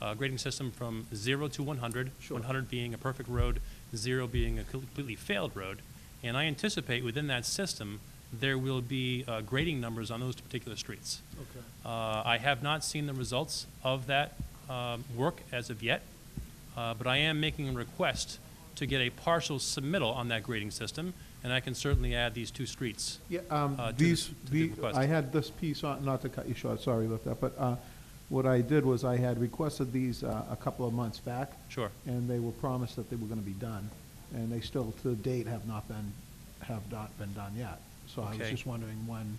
uh, grading system from zero to 100, Sure. 100 being a perfect road, zero being a completely failed road. And I anticipate within that system, there will be uh, grading numbers on those particular streets. Okay. Uh, I have not seen the results of that um, work as of yet, uh, but I am making a request to get a partial submittal on that grading system, and I can certainly add these two streets. Yeah, um, uh, to the- these, to the the- request. I had this piece on, not to cut you short, sorry about that, but uh, what I did was I had requested these uh, a couple of months back, Sure. and they were promised that they were going to be done, and they still, to date, have not been, have not been done yet. So I was Okay. just wondering when,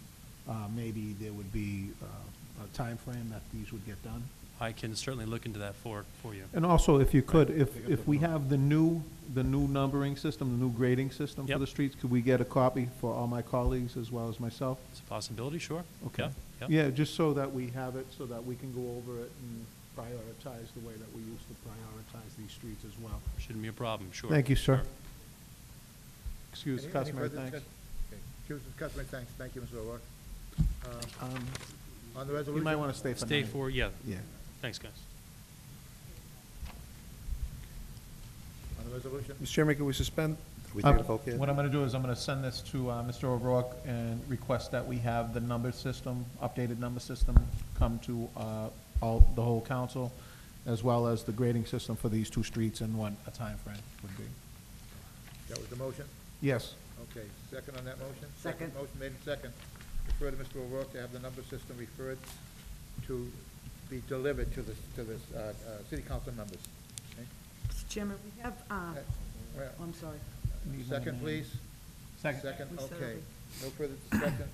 uh, maybe there would be uh, a timeframe that these would get done? I can certainly look into that for, for you. And also, if you could, if, got if the we number. have the new, the new numbering system, the new grading system for Yep. the streets, could we get a copy for all my colleagues as well as myself? It's a possibility, sure. Okay. Yeah, yeah. Yeah, just so that we have it, so that we can go over it and prioritize the way that we used to prioritize these streets as well. Shouldn't be a problem, sure. Thank you, sir. Sure. Excuse Any- the any customary further thanks. discuss- okay. Excuse the customary thanks. Thank you, Mr. O'Rourke. Uh, Um, On the You resolution. might want to stay for Stay nine. for, yeah, Yeah. thanks, guys. On the resolution? Mr. Chairman, can we suspend? We Um, take a vote here? What I'm going to do is I'm going to send this to uh, Mr. O'Rourke and request that we have the number system, updated number system, come to uh, all, the whole council, as well as the grading system for these two streets and what a time frame would be. That was the motion? Yes. Okay, second on that motion? Second. Motion made in second. Refer to Mr. O'Rourke to have the number system referred to be delivered to the, to the uh, uh, city council members. Okay? Mr. Chairman, we have, uh, Uh, well, oh, I'm sorry. Second, please. Second. Second, We said okay. it. No further discussion.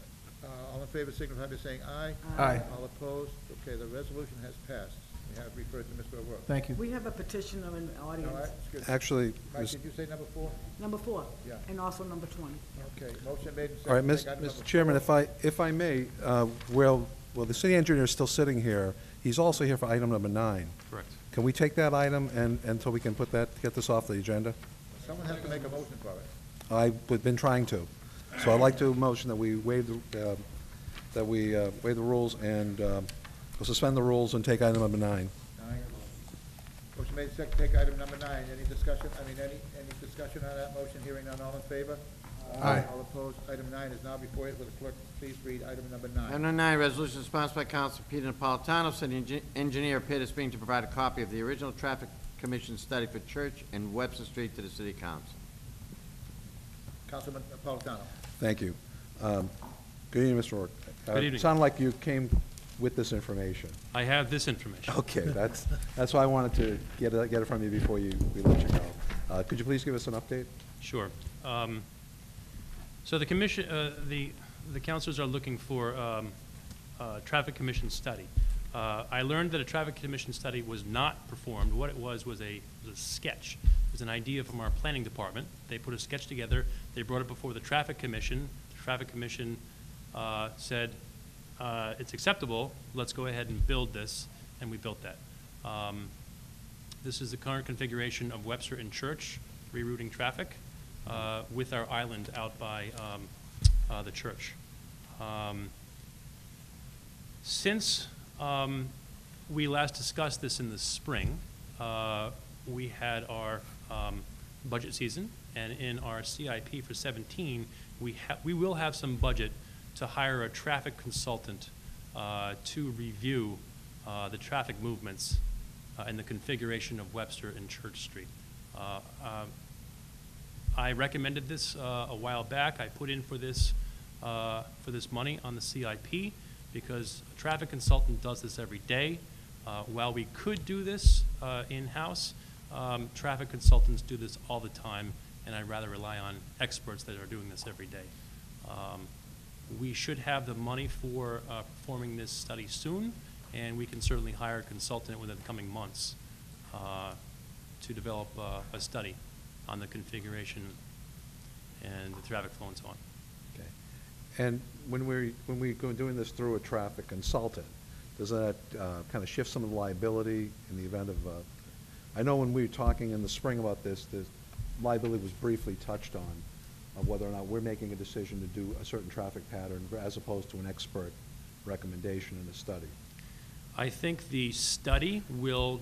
Uh, All in favor signify by saying aye. Aye. All opposed? Okay, the resolution has passed. We have referred to Mr. O'Rourke. Thank you. We have a petitioner in the No, I- audience, excuse me. Actually, Mike, Ms. did you say number four? number four, Yeah. and also number 20. Okay, motion made and seconded. all right, Ms. Take item Mr. number- Chairman, if I, if I may, uh, well, well, the city engineer is still sitting here. He's also here for item number nine. Correct. Can we take that item and, until we can put that, get this off the agenda? Someone has to make a motion for it. I've been trying to. So I'd like to motion that we waive, the uh, that we uh, waive the rules and um, we'll suspend the rules and take item number nine. Nine. Motion made and seconded. Take item number nine. Any discussion, I mean, any, any discussion on that motion? Hearing none, all in favor? Aye. All opposed? Item nine is now before you. Will the clerk please read item number nine? Item nine, resolution sponsored by Council Peter Napolitano, city engi- engineer Peter Spring to provide a copy of the original traffic commission study for Church and Webster Street to the city council. Councilman Napolitano. Thank you. Um, Good evening, Mr. Rourke. Uh, Good evening. Sounded like you came with this information. I have this information. Okay, that's, that's why I wanted to get it, get it from you before you, we let you go. Uh, Could you please give us an update? Sure. Um, So the commission, uh, the, the councilors are looking for um, a traffic commission study. Uh, I learned that a traffic commission study was not performed. What it was, was a, was a sketch. It was an idea from our planning department. They put a sketch together, they brought it before the traffic commission. The traffic commission uh, said, uh, it's acceptable, let's go ahead and build this, and we built that. Um, this is the current configuration of Webster and Church, rerouting traffic uh, with our island out by um, uh, the church. Um, Since um, we last discussed this in the spring, uh, we had our um, budget season, and in our CIP for 17, we ha- we will have some budget to hire a traffic consultant uh, to review uh, the traffic movements uh, and the configuration of Webster and Church Street. Uh, um, I recommended this uh, a while back. I put in for this, uh, for this money on the CIP because a traffic consultant does this every day. Uh, While we could do this uh, in-house, um, traffic consultants do this all the time, and I'd rather rely on experts that are doing this every day. Um, We should have the money for uh, performing this study soon, and we can certainly hire a consultant within the coming months uh, to develop uh, a study on the configuration and the traffic flow and so on. Okay. And when we're, when we go doing this through a traffic consultant, does that uh, kind of shift some of the liability in the event of, uh, I know when we were talking in the spring about this, the liability was briefly touched on, of whether or not we're making a decision to do a certain traffic pattern as opposed to an expert recommendation in a study. I think the study will